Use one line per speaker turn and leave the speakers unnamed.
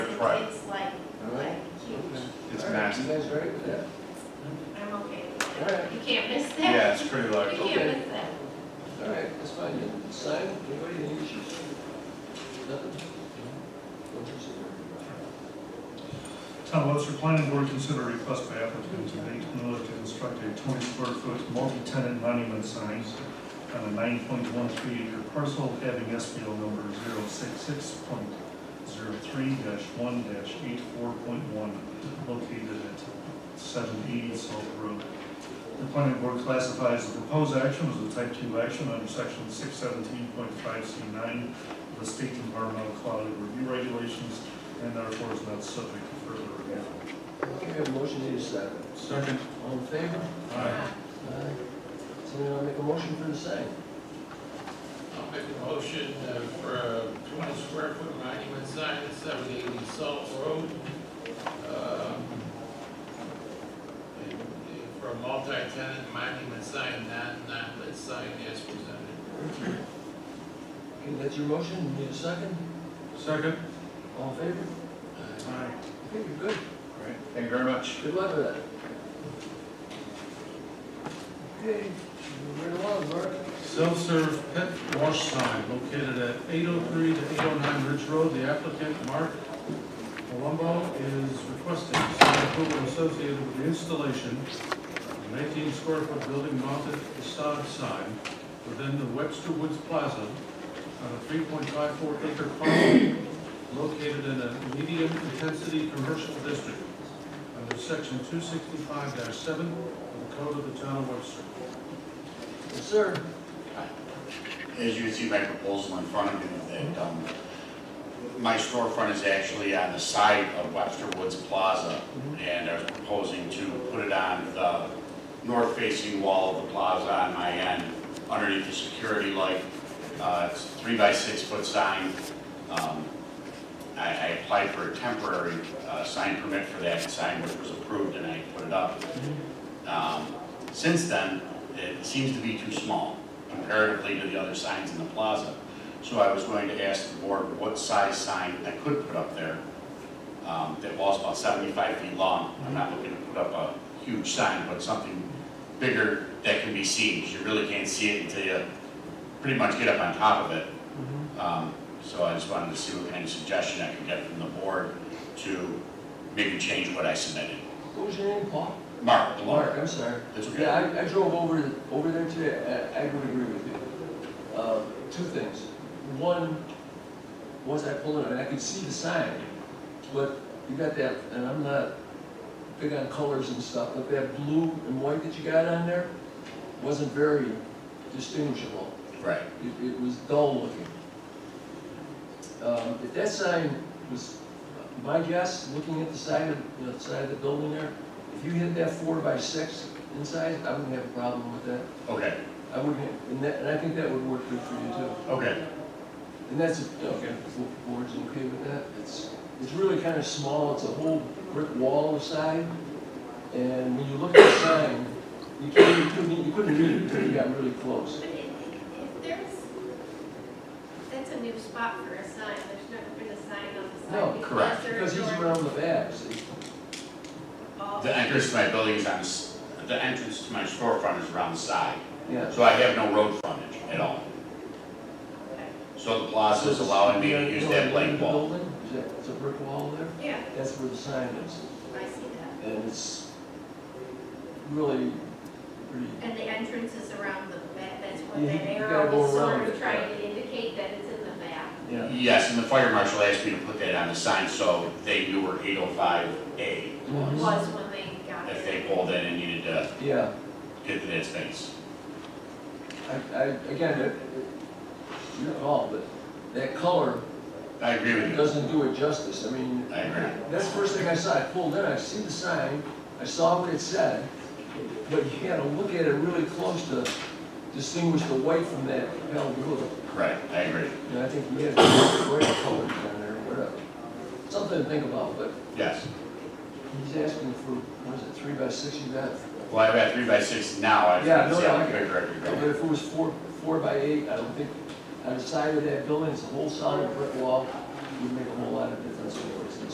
Right.
It's like, like huge.
It's
All right,
massive.
You guys ready for that?
I'm okay
All
with
right.
that. You can't miss that.
Yeah, it's pretty
You
large.
can't miss that.
All right, that's fine, then. Sign, anybody, any issues? Nothing? What you say?
Town of Webster Planning Board consider request by applicant to Nathan Miller to construct a twenty square foot multi-tenant monument sign on a nine point one three acre parcel having SBL number 066.03 one eight four point one located at seven eighty South Road. The planning board classifies the proposed action as a type two action under section six seventeen point five C nine of the state environmental quality review regulations and therefore is not subject to further review.
Okay, we have a motion, need a second.
Second.
All in favor? Aye. Somebody wanna make a motion for the sign?
I'll make a motion uh, for a twenty square foot monument sign at seven eighty Salt Road. um, and, uh, For a multi-tenant monument sign, not, not lit sign as presented.
Okay, that's your motion, need a second?
Second.
All in favor?
Aye.
Okay, you're good.
Great. Thank you very much.
Good luck with that. Okay, we're right along, Mark.
Self-serve pet wash sign located at eight oh three to eight oh nine Ridge Road. The applicant, Mark Palumbo, is requesting sign approval associated with the installation of an eighteen square foot building mounted facade sign within the Webster Woods Plaza on a three point five four acre parcel located in a medium intensity commercial district under section two sixty-five seven of the Code of the Town of Webster.
Yes, sir.
as you can see my proposal in front of you, that um, my storefront is actually on the side of Webster Woods Plaza, and I was proposing to put it on the north-facing wall of the plaza on my end, underneath the security light. Uh, It's a three by six foot sign. Um, I I applied for a temporary uh, sign permit for that sign, which was approved, and I put it up. Um, Since then, it seems to be too small comparatively to the other signs in the plaza. So I was going to ask the board what size sign I could put up there um, that was about 75 feet long. I'm not looking to put up a huge sign, but something bigger that can be seen, 'cause you really can't see it until you pretty much get up on top of it.
Mm-hmm.
Um, So I just wanted to see what kind of suggestion I could get from the board to maybe change what I submitted.
What was your name, Paul?
Mark, the
Mark,
lawyer,
I'm sorry.
that's okay.
Yeah, I, I drove over, over there today, I, I would agree with you. Uh, two things. One, once I pulled in, I could see the sign, but you got that, and I'm not big on colors and stuff, but that blue and white that you got on there wasn't very distinguishable.
Right.
It, it was dull looking. Um, if that sign was, my guess, looking at the side of, you know, the side of the building there, if you hit that four by six inside, I wouldn't have a problem with that.
Okay,
I wouldn't, have- and that, and I think that would work good for you too.
okay,
And that's, okay, the board's okay with that? It's, it's really kind of small, it's a whole brick wall aside. And when you look at the sign, you can't, you couldn't, you couldn't read it until you got really
But
close.
if, if there's, that's a new spot for a sign, there's never been a sign on the
No,
side.
correct,
Because he's around the back, see?
The entrance to my building is on, the s- the entrance to my storefront is around the side,
Yeah.
so I have no road frontage at all. So the plaza is allowing me to use that blank wall.
Building, is that, it's a brick wall there?
Yeah,
That's where the sign is,
I see that.
and it's really pretty,
And the entrance is around the back, that's what
You-
that
you gotta
arrow
go
was
around
sort
it,
of trying to indicate that it's in the back.
yeah.
Yes, and the fire marshal asked me to put that on the sign, so they knew where eight oh five A
Mhm.
was.
Was when they got
If they
it.
pulled in and needed to
Yeah,
get to that space.
I, I, again, it- it- your call, but that color
I agree with you.
doesn't do it justice, I mean,
I agree.
that's the first thing I saw, I pulled in, I see the sign, I saw what it said, but you gotta look at it really close to distinguish the white from that pale blue.
Correct, I agree.
And I think we had great colors down there, whatever. Something to think about, but
Yes.
he's asking for, what is it, three by six you got?
Well, I've got three by six now, I
Yeah,
just
no,
see
no,
how
I-
bigger I could
But
go.
if it was four, four by eight, I don't think, on the side of that building, it's a whole solid brick wall, would make a whole lot of